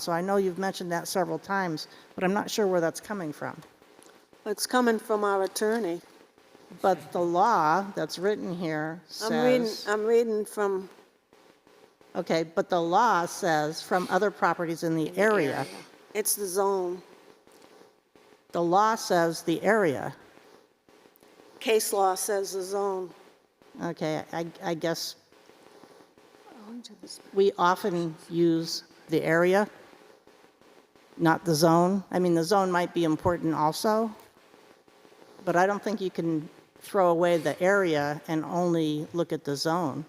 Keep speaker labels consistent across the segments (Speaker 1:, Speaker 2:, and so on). Speaker 1: So I know you've mentioned that several times, but I'm not sure where that's coming from.
Speaker 2: It's coming from our attorney.
Speaker 1: But the law that's written here
Speaker 2: I'm reading,
Speaker 1: says,
Speaker 2: I'm reading from,
Speaker 1: okay, but the law says from other properties um, in the area.
Speaker 2: it's the zone.
Speaker 1: The law says the area.
Speaker 2: Case law says the zone.
Speaker 1: Okay, I, I guess
Speaker 2: Oh,
Speaker 1: we often use the area, not the zone. I mean, the zone might be important also, but I don't think you can throw away the area and only look at the zone.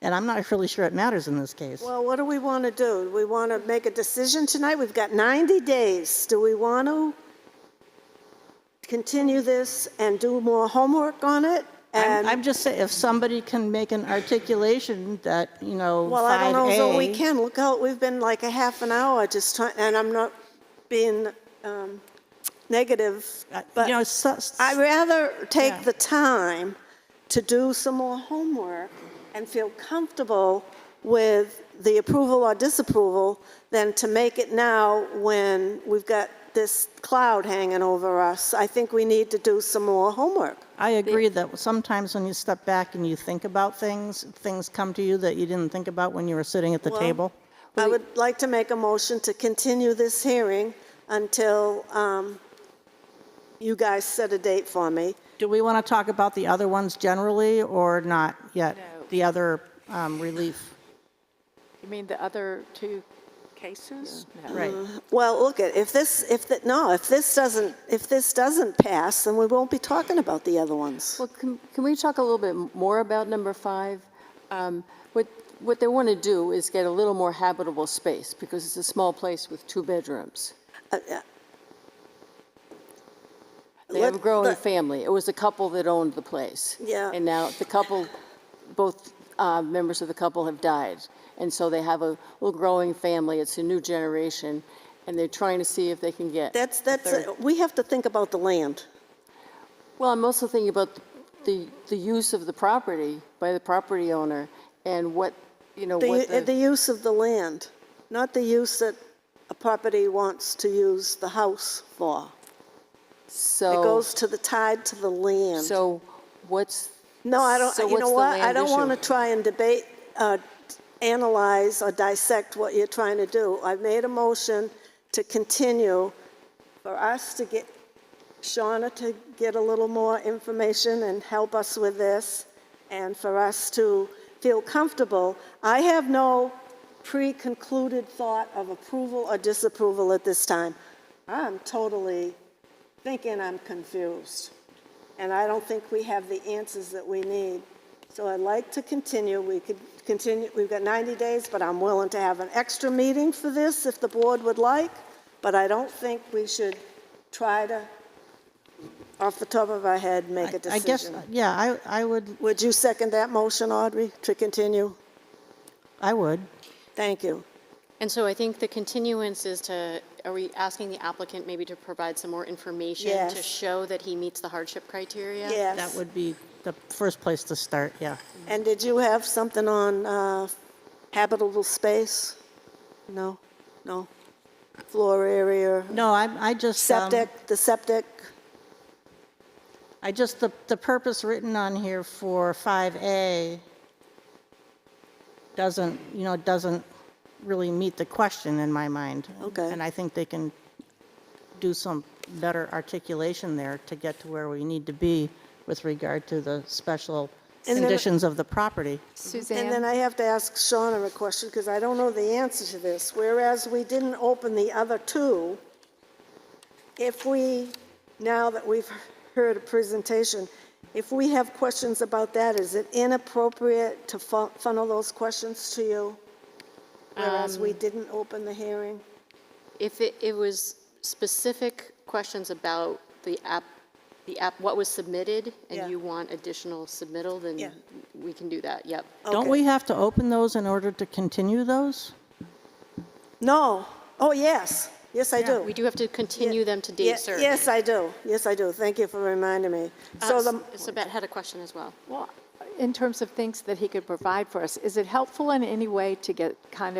Speaker 1: And I'm not really sure it matters in this case.
Speaker 2: Well, what do we want to do? Do we want to make a decision tonight? We've got 90 days. Do we want to continue this and do more homework on it?
Speaker 1: I'm, I'm
Speaker 2: And,
Speaker 1: just saying, if somebody can make an articulation that, you know, 5A.
Speaker 2: well, I don't know if we can. Look out, we've been like a half an hour just trying, and I'm not being um, negative,
Speaker 1: uh,
Speaker 2: but...
Speaker 1: You know, so-
Speaker 2: I'd rather
Speaker 1: Yeah.
Speaker 2: take the time to do some more homework and feel comfortable with the approval or disapproval than to make it now when we've got this cloud hanging over us. I think we need to do some more homework.
Speaker 1: I agree that sometimes when you step back and you think about things, things come to you that you didn't think about when you were sitting at the table.
Speaker 2: I would like to make a motion to continue this hearing until um, you guys set a date for me.
Speaker 1: Do we want to talk about the other ones generally or not yet? The other um, relief,
Speaker 3: You mean the other two cases? No.
Speaker 1: right?
Speaker 2: Well, look, if this, if, the- no, if this doesn't, if this doesn't pass, then we won't be talking about the other ones.
Speaker 4: Well, can, can we talk a little bit more about number five? Um, What, what they want to do is get a little more habitable space, because it's a small place with two bedrooms.
Speaker 2: Uh, uh,
Speaker 4: They have a
Speaker 2: Let-
Speaker 4: growing
Speaker 2: let-
Speaker 4: family. It was a couple that owned the place.
Speaker 2: Yeah.
Speaker 4: And now the couple, both uh, members of the couple have died. And so they have a little growing family. It's a new generation, and they're trying to see if they can get.
Speaker 2: That's, that's, we have to think about the land.
Speaker 4: Well, I'm also thinking about the, the use of the property by the property owner and what, you know,
Speaker 2: The,
Speaker 4: what
Speaker 2: u- the use of the land, not the use that a property wants to use the house for. It
Speaker 4: So.
Speaker 2: goes to the, tied to the land.
Speaker 4: Oh. So what's?
Speaker 2: No, I don't,
Speaker 4: so
Speaker 2: you
Speaker 4: what's
Speaker 2: know
Speaker 4: the
Speaker 2: what? I
Speaker 4: land
Speaker 2: don't
Speaker 4: issue?
Speaker 2: want to try and debate, uh, analyze or dissect what you're trying to do. I've made a motion to continue for us to get, Shauna to get a little more information and help us with this, and for us to feel comfortable. I have no pre-concluded thought of approval or disapproval at this time. I'm totally thinking I'm confused, and I don't think we have the answers that we need. So I'd like to continue, we could continue, we've got 90 days, but I'm willing to have an extra meeting for this if the board would like, but I don't think we should try to, off the top of our head, make a
Speaker 1: I guess,
Speaker 2: decision.
Speaker 1: yeah, I, I would,
Speaker 2: Would you second that motion, Audrey, to continue?
Speaker 1: I would.
Speaker 2: Thank you.
Speaker 5: And so I think the continuance is to, are we asking the applicant maybe to provide some more information to
Speaker 2: Yes.
Speaker 5: show that he meets the hardship criteria?
Speaker 1: That
Speaker 2: Yes.
Speaker 1: would be the first place to start, yeah.
Speaker 2: And did you have something on uh, habitable space? No, no. Floor area?
Speaker 1: No, I, I just. um,
Speaker 2: Septic, the septic,
Speaker 1: I just, the, the purpose written on here for 5A doesn't, you know, doesn't really meet the question in my mind.
Speaker 2: Okay.
Speaker 1: And I think they can do some better articulation there to get to where we need to be with regard to the special
Speaker 2: And then-
Speaker 1: conditions of the property.
Speaker 2: and then I have to ask Shauna a question, because I don't know the answer to this. Whereas we didn't open the other two, if we, now that we've heard a presentation, if we have questions about that, is it inappropriate to fu- funnel those questions to you? Whereas we didn't open the hearing?
Speaker 5: If it, it was specific questions about the app, the app, what was submitted,
Speaker 2: Yeah.
Speaker 5: and you want additional submittal,
Speaker 2: Yeah. Oh,
Speaker 5: then we can do that, yep.
Speaker 1: Don't
Speaker 2: Okay.
Speaker 1: we have to open those in order to continue those?
Speaker 2: No. Oh, yes. Yes, I do.
Speaker 5: We do have to continue them to
Speaker 2: Ye-
Speaker 5: date certain.
Speaker 2: Yes, I do. Yes, I do. Thank you for reminding me. So the,
Speaker 5: Sabette Um, had a question as well.
Speaker 3: Well, in terms of things that he could provide for us, is it helpful in any way to get kind of